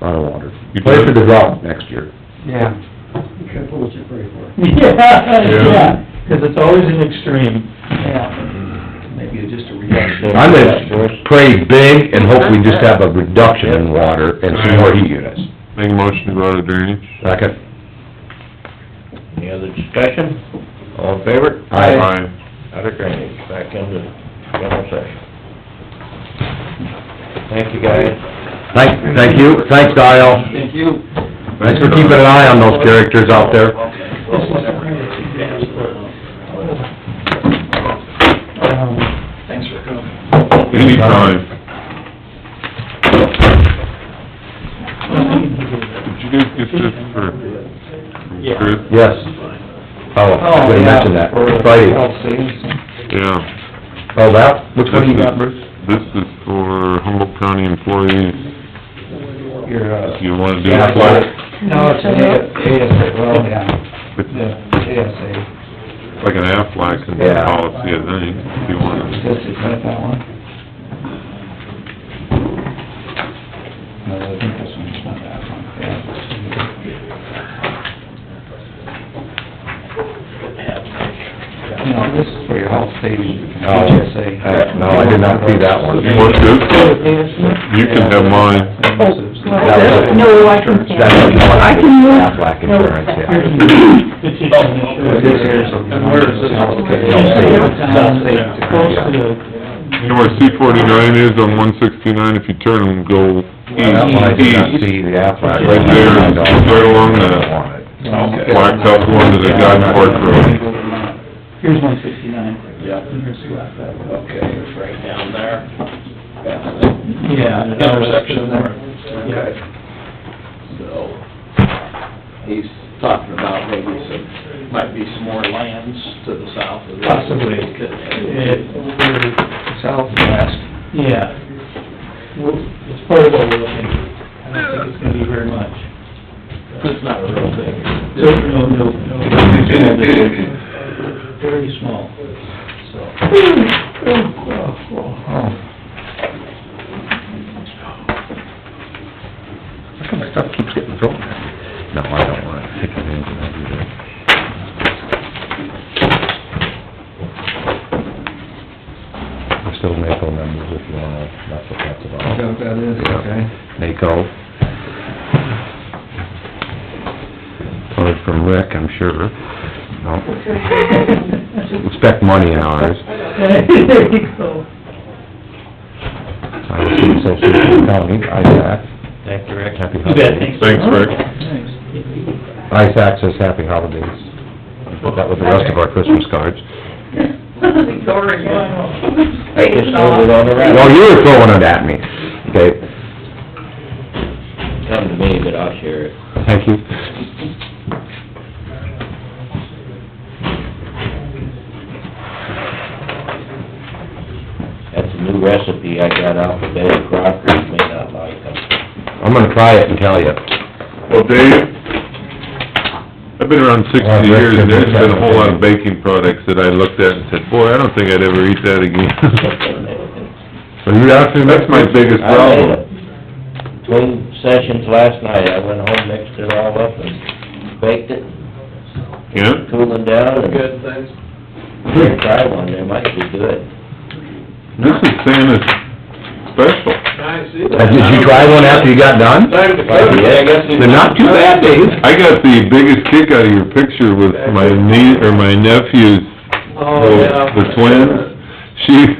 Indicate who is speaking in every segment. Speaker 1: lot of water.
Speaker 2: You
Speaker 1: Play for
Speaker 2: did?
Speaker 1: the drought next year.
Speaker 3: Yeah,
Speaker 4: Careful what you pray for.
Speaker 3: yeah, because it's always an extreme.
Speaker 4: Maybe it's just a reduction.
Speaker 1: I'm gonna pray big and hope we just have a reduction in water and some more heat units.
Speaker 2: Make a motion to go out of drainage?
Speaker 1: Second?
Speaker 5: Any other discussion? All in favor?
Speaker 2: Aye.
Speaker 5: Out of drainage, back into general session. Thank you, guys.
Speaker 1: Thank, thank you, thanks, Dial. Thank you. Thanks for keeping an eye on those characters out there.
Speaker 3: Um,
Speaker 4: Thanks for coming.
Speaker 2: Anytime. Did you guys get this for, from
Speaker 3: Yeah.
Speaker 2: Chris?
Speaker 1: Yes. Oh, I
Speaker 3: Oh,
Speaker 1: should have
Speaker 3: yeah,
Speaker 1: mentioned that.
Speaker 3: for
Speaker 1: Friday.
Speaker 3: health savings.
Speaker 2: Yeah.
Speaker 1: Oh, that, which one you got,
Speaker 2: This
Speaker 1: Bruce?
Speaker 2: is- This is for Humboldt County employees.
Speaker 3: Your, uh,
Speaker 2: You wanna do
Speaker 3: Yeah, I got
Speaker 2: it?
Speaker 3: it. no, it's an ASA, well, yeah,
Speaker 2: It's
Speaker 3: the ASA,
Speaker 2: like an Aflac and
Speaker 1: Yeah.
Speaker 2: policy, I think, if you
Speaker 3: is
Speaker 2: want.
Speaker 3: that, is that that one? No, I think this one's not that one, yeah. No, this is for your health savings,
Speaker 1: Oh,
Speaker 3: HSA.
Speaker 1: uh, no, I did not see that one.
Speaker 2: You want this? You can have mine.
Speaker 1: That was-
Speaker 6: No, I can stand.
Speaker 1: That's the one.
Speaker 6: I can move.
Speaker 1: Aflac insurance, yeah.
Speaker 3: uh,
Speaker 2: You know where C forty-nine is on one sixty-nine, if you turn and E go
Speaker 1: That one I did not
Speaker 2: east, east,
Speaker 1: see, the Aflac.
Speaker 2: Right there, right along the-
Speaker 1: I don't want it.
Speaker 2: blacktop going to the Godfork Road.
Speaker 3: uh, Here's one sixty-nine.
Speaker 4: Yeah. Okay, it's right down there.
Speaker 3: Yeah.
Speaker 4: Intersection there. Okay. So, he's talking about maybe some, might be some more lands to the south of this.
Speaker 3: Possibly.
Speaker 4: Southwest.
Speaker 3: Yeah. Well, It's part of what we're looking at. I don't think it's gonna be very much.
Speaker 4: It's not a real thing.
Speaker 3: No, no, no, no. Very small, so.
Speaker 1: How come my stuff keeps getting thrown? No, I don't want it. Take it in, I'll do that. We're still NACO members if you wanna, that's what that's about.
Speaker 3: Is that what that is?
Speaker 1: Yeah.
Speaker 3: Okay.
Speaker 1: NACO. Heard from Rick, I'm sure. No, expect money in ours.
Speaker 6: There you go.
Speaker 1: I was in Association County, ISAC.
Speaker 5: Thank you, Rick.
Speaker 1: Happy
Speaker 3: You bet,
Speaker 1: holidays.
Speaker 3: thanks.
Speaker 2: Thanks, Rick.
Speaker 1: ISAC says happy holidays. I put that with the rest of our Christmas cards.
Speaker 5: I just moved it on around.
Speaker 1: Well, you were throwing it at me. Okay,
Speaker 5: Come to me, but I'll share it.
Speaker 1: thank you.
Speaker 5: That's a new recipe I got out of Betty Crocker, you may not like them.
Speaker 1: I'm gonna try it and tell you.
Speaker 2: Well, Dave, I've been around sixty years, and there's been a whole lot of baking products that I looked at and said, boy, I don't think I'd ever eat that again.
Speaker 1: Are you after
Speaker 2: That's my biggest
Speaker 5: I made
Speaker 2: problem.
Speaker 5: it. Between sessions last night, I went home, mixed it all up and baked it,
Speaker 2: Yeah?
Speaker 5: cooling down and...
Speaker 4: Good things.
Speaker 5: Here, try one, they might be good.
Speaker 2: This is Santa's special.
Speaker 4: I see
Speaker 1: Uh, Did you try one after you got done?
Speaker 4: Time to cook.
Speaker 5: Yeah, I guess it's-
Speaker 1: They're not too bad, Dave.
Speaker 2: I got the biggest kick out of your picture with my niece, or my nephew's,
Speaker 4: Oh,
Speaker 2: the the twins. She,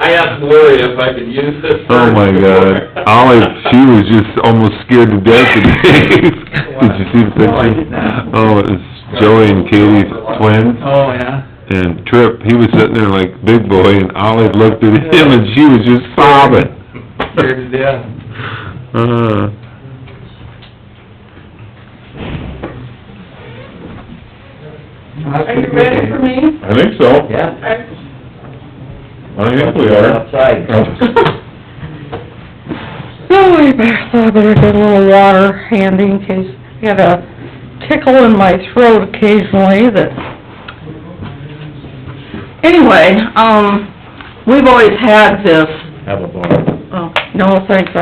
Speaker 4: I asked Lori if I could use this.
Speaker 2: Oh my God, Olive, she was just almost scared to death today. Did you see the picture?
Speaker 3: No, I did not.
Speaker 2: Oh, it's Joey and Katie's twins,
Speaker 3: Oh, yeah?
Speaker 2: and Trip, he was sitting there like big boy, and Olive looked at him and she was just sobbing.
Speaker 3: Scared to death.
Speaker 2: Uh,
Speaker 6: Are you ready for me?
Speaker 2: I think so.
Speaker 5: Yeah.
Speaker 6: I-
Speaker 2: I think we are.
Speaker 5: Outside.
Speaker 6: Oh, I better, I better get a little water handy in case, I got a tickle in my throat occasionally that... Anyway, um, we've always had this,
Speaker 5: Have a bar.
Speaker 6: oh, no, thanks,